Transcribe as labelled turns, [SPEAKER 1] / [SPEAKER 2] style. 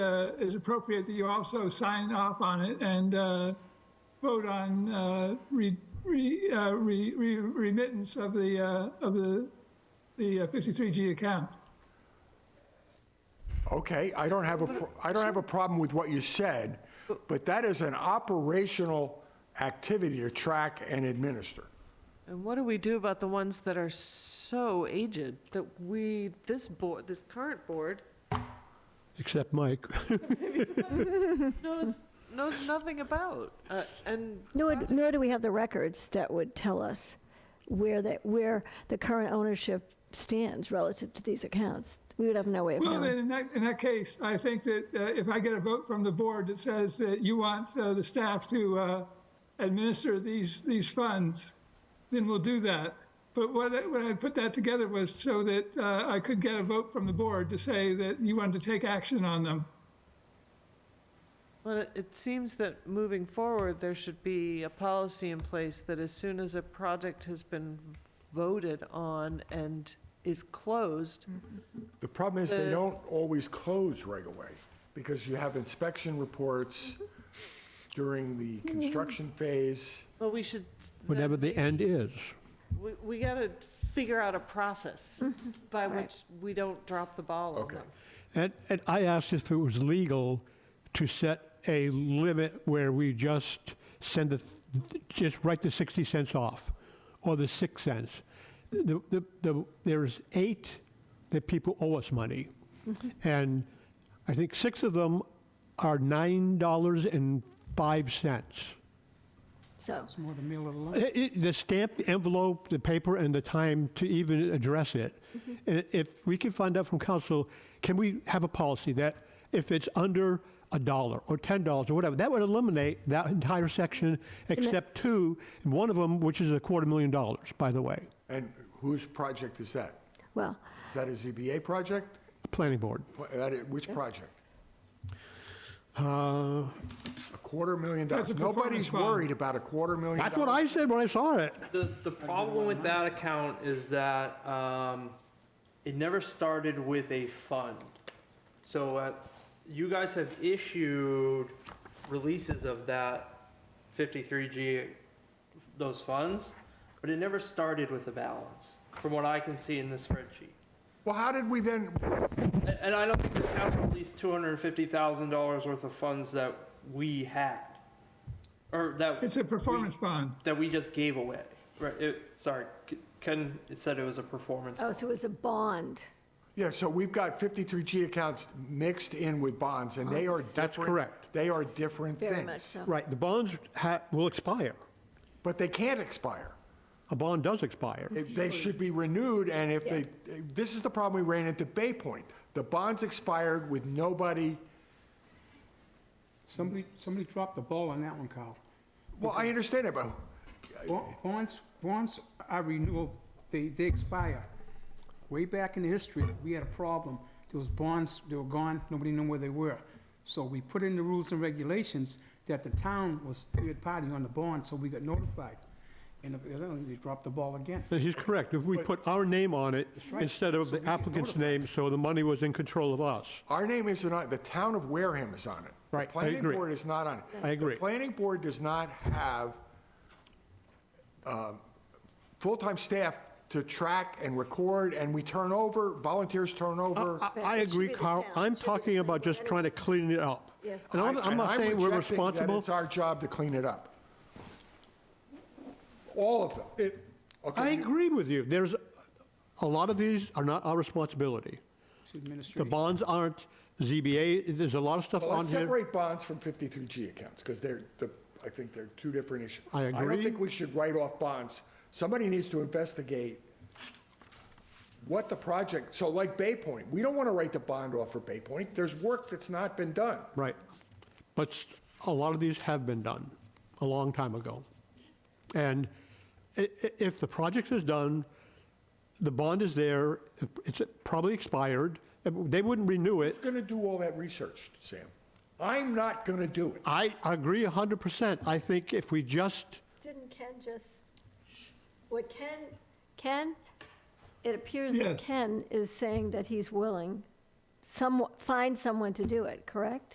[SPEAKER 1] uh, is appropriate that you also sign off on it and uh, vote on uh, re- re- uh, re- re- remittance of the, uh, of the the uh, 53G account.
[SPEAKER 2] Okay, I don't have a, pro- I don't have a problem with what you said, but that is an operational activity to track and administer.
[SPEAKER 3] And what do we do about the ones that are so aged that we, this board, this current board
[SPEAKER 4] except Mike.
[SPEAKER 3] knows, knows nothing about? Uh, And
[SPEAKER 5] Nor, nor do we have the records that would tell us where that, where the current ownership stands relative to these accounts. We would have no way of
[SPEAKER 1] Well, then,
[SPEAKER 5] knowing.
[SPEAKER 1] in that, in that case, I think that uh, if I get a vote from the board that says that you want uh, the staff to uh, administer these, these funds, then we'll do that. But what, I- what I put that together was so that uh, I could get a vote from the board to say that you wanted to take action on them.
[SPEAKER 3] Well, it- it seems that moving forward, there should be a policy in place that as soon as a project has been voted on and is closed,
[SPEAKER 2] The problem is they
[SPEAKER 3] The-
[SPEAKER 2] don't always close right away because you have inspection reports during the construction phase.
[SPEAKER 3] well, we should.
[SPEAKER 4] Whatever the end is.
[SPEAKER 3] We, we gotta figure out a process by
[SPEAKER 5] Right.
[SPEAKER 3] which we don't drop the ball on
[SPEAKER 2] Okay.
[SPEAKER 3] them.
[SPEAKER 4] And, and I asked if it was legal to set a limit where we just send the, just write the 60 cents off or the 6 cents. The, the, the, there's eight that people owe us money. And I think six of them are $9.05.
[SPEAKER 5] So,
[SPEAKER 4] It- it- The stamp, the envelope, the paper, and the time to even address it. And if we can find out from council, can we have a policy that if it's under a dollar or ten dollars or whatever, that would eliminate that entire section except two, and one of them, which is a quarter million dollars, by the way,
[SPEAKER 2] And whose project is that?
[SPEAKER 5] well,
[SPEAKER 2] Is that a ZBA project?
[SPEAKER 4] planning board.
[SPEAKER 2] Wha- that i- Which project?
[SPEAKER 4] Uh,
[SPEAKER 2] A quarter million dollars.
[SPEAKER 1] That's a performance
[SPEAKER 2] Nobody's
[SPEAKER 1] bond.
[SPEAKER 2] worried about a quarter million dollars.
[SPEAKER 4] That's what I said when I saw it.
[SPEAKER 6] The, the problem with that account is that, um, it never started with a fund. So, uh, you guys have issued releases of that fifty-three G, those funds, but it never started with a balance, from what I can see in the spreadsheet.
[SPEAKER 2] Well, how did we then,
[SPEAKER 6] And- And I don't think the town released two hundred and fifty thousand dollars worth of funds that we had, or that.
[SPEAKER 1] It's a
[SPEAKER 6] we-
[SPEAKER 1] performance bond.
[SPEAKER 6] that we just gave away. Right. It, sorry, K- Ken said it was a performance.
[SPEAKER 5] oh, so it was a bond.
[SPEAKER 2] yeah, so we've got 53G accounts mixed in with bonds and they are different.
[SPEAKER 4] Oh, That's correct.
[SPEAKER 2] They are different things.
[SPEAKER 5] Very much so.
[SPEAKER 4] Right, the bonds ha- will expire.
[SPEAKER 2] But they can't expire.
[SPEAKER 4] A bond does expire.
[SPEAKER 2] They- They should be renewed, and if they, this is the problem we ran into Bay Point. The bonds expired with nobody,
[SPEAKER 7] Somebody, somebody dropped the ball on that one, Carl.
[SPEAKER 2] well, I understand it, but
[SPEAKER 7] Bo- Bonds, bonds are renewable, they, they expire. Way back in history, we had a problem. There was bonds, they were gone, nobody knew where they were. So we put in the rules and regulations that the town was third party on the bond, so we got notified. And evidently, they dropped the ball again.
[SPEAKER 4] No, He's correct. If we put our name on it
[SPEAKER 7] right.
[SPEAKER 4] instead of
[SPEAKER 7] So we
[SPEAKER 4] the
[SPEAKER 7] get
[SPEAKER 4] applicant's
[SPEAKER 7] notified.
[SPEAKER 4] name, so the money was in control of us.
[SPEAKER 2] our name isn't on, it. the town of Wareham is on it. The
[SPEAKER 4] Right, I
[SPEAKER 2] Planning
[SPEAKER 4] agree.
[SPEAKER 2] board is not on it.
[SPEAKER 4] I agree.
[SPEAKER 2] The planning board does not have um, full-time staff to track and record, and we turn over, volunteers turn over.
[SPEAKER 4] I, I
[SPEAKER 5] It should
[SPEAKER 4] agree,
[SPEAKER 5] be the
[SPEAKER 4] Carl.
[SPEAKER 5] town.
[SPEAKER 4] I'm
[SPEAKER 5] It should be
[SPEAKER 4] talking
[SPEAKER 5] the
[SPEAKER 4] about
[SPEAKER 5] town.
[SPEAKER 4] just trying to clean it up.
[SPEAKER 5] Yeah.
[SPEAKER 4] And I'm,
[SPEAKER 2] I-
[SPEAKER 4] I'm
[SPEAKER 2] and
[SPEAKER 4] not saying
[SPEAKER 2] rejecting
[SPEAKER 4] we're
[SPEAKER 2] that
[SPEAKER 4] responsible.
[SPEAKER 2] It's our job to clean it up. All of them. Okay,
[SPEAKER 4] I
[SPEAKER 2] you-
[SPEAKER 4] agree with you. There's, a lot of these are not our responsibility.
[SPEAKER 7] It's
[SPEAKER 4] The
[SPEAKER 7] administration.
[SPEAKER 4] bonds aren't, ZBA, there's a lot of stuff
[SPEAKER 2] Well,
[SPEAKER 4] on
[SPEAKER 2] let's
[SPEAKER 4] here.
[SPEAKER 2] separate bonds from 53G accounts, because they're, the- I think they're two different issues.
[SPEAKER 4] I
[SPEAKER 2] I don't
[SPEAKER 4] agree.
[SPEAKER 2] think we should write off bonds. Somebody needs to investigate what the project, so like Bay Point, we don't want to write the bond off for Bay Point. There's work that's not been done.
[SPEAKER 4] Right. But s- a lot of these have been done a long time ago. And i- i- if the project is done, the bond is there, it's probably expired, they wouldn't renew it.
[SPEAKER 2] Who's going to do all that research, Sam? I'm not going to do it.
[SPEAKER 4] I agree 100%. I think if we just,
[SPEAKER 5] Didn't Ken just, what Ken, Ken, it appears that
[SPEAKER 1] Yes.
[SPEAKER 5] Ken is saying that he's willing, some, find someone to do it, correct?